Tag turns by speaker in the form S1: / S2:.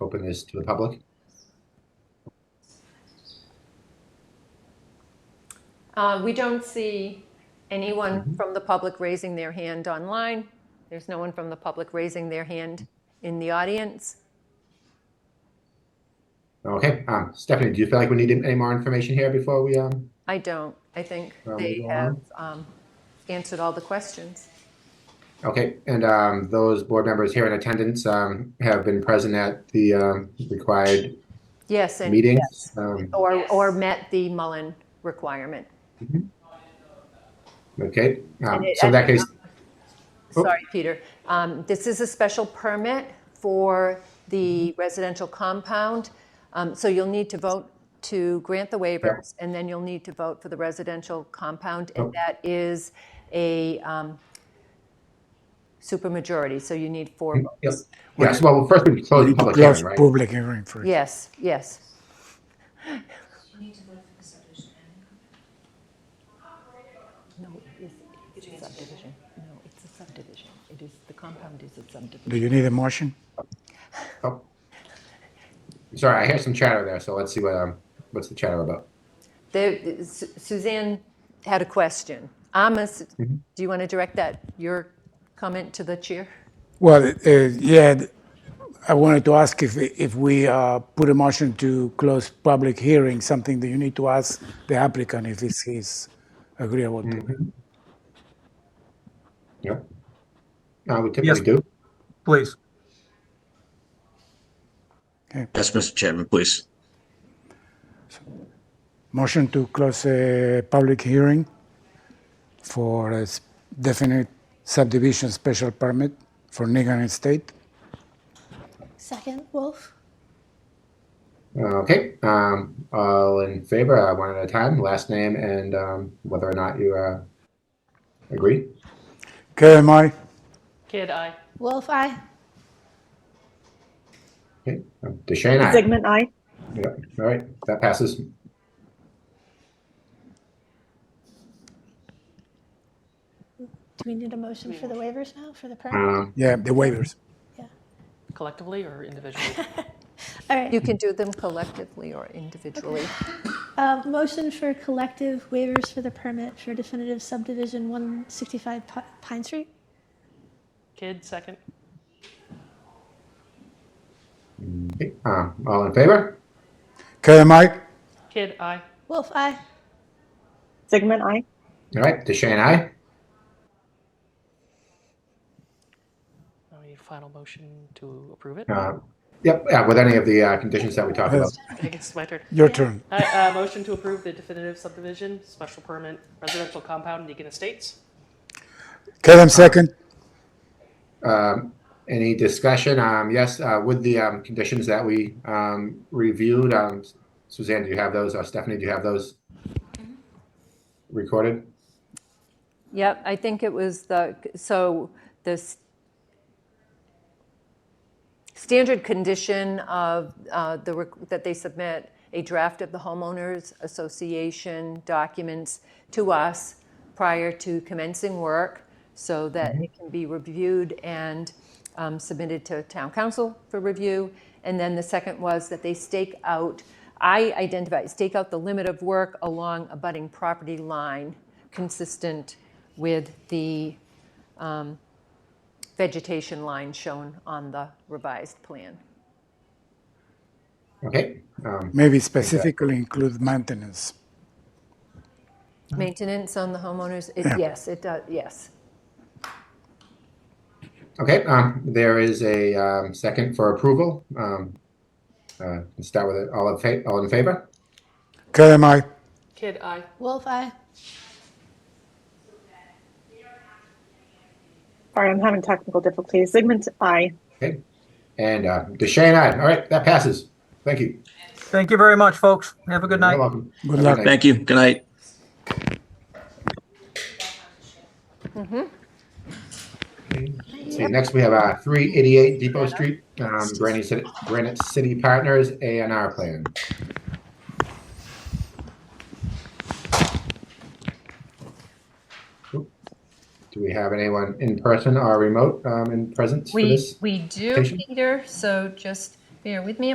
S1: open this to the public.
S2: Uh, We don't see anyone
S1: Mhm.
S2: from the public raising their hand online. There's no one from the public raising their hand in the audience.
S1: Okay, um, Stephanie, do you feel like we need any more information here before we, um,
S2: I don't. I think
S1: Well,
S2: they
S1: moving
S2: have um, answered all the questions.
S1: okay, and, um, those board members here in attendance, um, have been present at the, um, required
S2: Yes, and
S1: meetings? Um,
S2: or,
S3: Yes.
S2: or met the Mullen requirement.
S1: Okay, um,
S2: And it-
S1: so in that
S2: and-
S1: case, Oh.
S2: Sorry, Peter. Um, This is a special permit for the
S1: Mm-hmm.
S2: residential compound. Um, So you'll need to vote to grant the waivers, and then you'll need to vote for the residential compound.
S1: Oh.
S2: And that is a um, supermajority, so you need four
S1: yep,
S2: votes.
S1: yes, well, first we close the public
S4: Close
S1: hearing, right?
S4: public hearing first.
S2: Yes, yes. No, it's it's a subdivision. No, it's a subdivision. It is, the compound is a subdivision.
S4: Do you need a motion?
S1: Oh. Sorry, I hear some chatter there, so let's see what, um, what's the chatter about?
S2: There- Su- Suzanne had a question. Amos, do you want to direct that, your comment to the chair?
S4: Well, uh, yeah, th- I wanted to ask if, if we uh, put a motion to close public hearing, something that you need to ask the applicant if this is agreeable to.
S1: Yep. Uh, we typically do.
S5: Please.
S6: Yes, Mr. Chairman, please.
S4: Motion to close a public hearing for a s- definite subdivision special permit for Nigan Estate.
S7: Second, Wolf.
S1: Okay, um, all in favor, uh, one at a time, last name and, um, whether or not you, uh, agree.
S4: KMI,
S3: Kid eye.
S7: Wolf, I.
S1: Okay, um, DeShane, aye.
S8: Segment I.
S1: Yep, all right, that passes.
S7: Do we need a motion for the waivers now, for the permit?
S1: Um,
S4: yeah, the waivers.
S3: Collectively or individually?
S7: All right,
S2: You can do them collectively or individually.
S7: uh, motion for collective waivers for the permit for definitive subdivision 165 Pi- Pine Street?
S3: Kid second.
S1: okay, um, all in favor?
S4: KMI,
S3: Kid eye.
S7: Wolf, I.
S8: Segment I.
S1: All right, DeShane, aye.
S3: Now we need a final motion to approve it.
S1: Uh, yep, uh, with any of the, uh, conditions that we talked about.
S3: I guess it's my turn.
S4: your turn.
S3: I, uh, motion to approve the definitive subdivision, special permit, residential compound, Deacon Estates.
S4: KM second.
S1: Um, any discussion? Um, yes, uh, with the, um, conditions that we, um, reviewed, um, Suzanne, do you have those? Uh, Stephanie, do you have those? Recorded?
S2: Yep, I think it was the, so the s- standard condition of uh, the, requ- that they submit a draft of the homeowners association documents to us prior to commencing work so that it can be reviewed and um, submitted to town council for review. And then the second was that they stake out, I identify, stake out the limit of work along a budding property line consistent with the um, vegetation line shown on the revised plan.
S1: Okay, um,
S4: Maybe specifically include maintenance.
S2: Mm-hmm. Maintenance on the homeowners, it- yes, it does, yes.
S1: okay, um, there is a, um, second for approval. Um, uh, let's start with it, all in fa- all in favor?
S4: KMI,
S3: Kid eye.
S7: Wolf, I.
S8: Sorry, I'm having technical difficulties. Segment I.
S1: Okay, and, uh, DeShane, aye. All right, that passes. Thank you.
S5: Thank you very much, folks. Have a good night.
S1: You're welcome.
S4: good luck.
S6: Thank you. Good night.
S1: So next we have, uh, three eighty-eight Depot Street, um, Granite City, Granite City Partners A and R plan. Do we have anyone in person or remote, um, in presence for
S2: We,
S1: this?
S2: we do,
S1: Patient?
S2: Peter, so just bear with me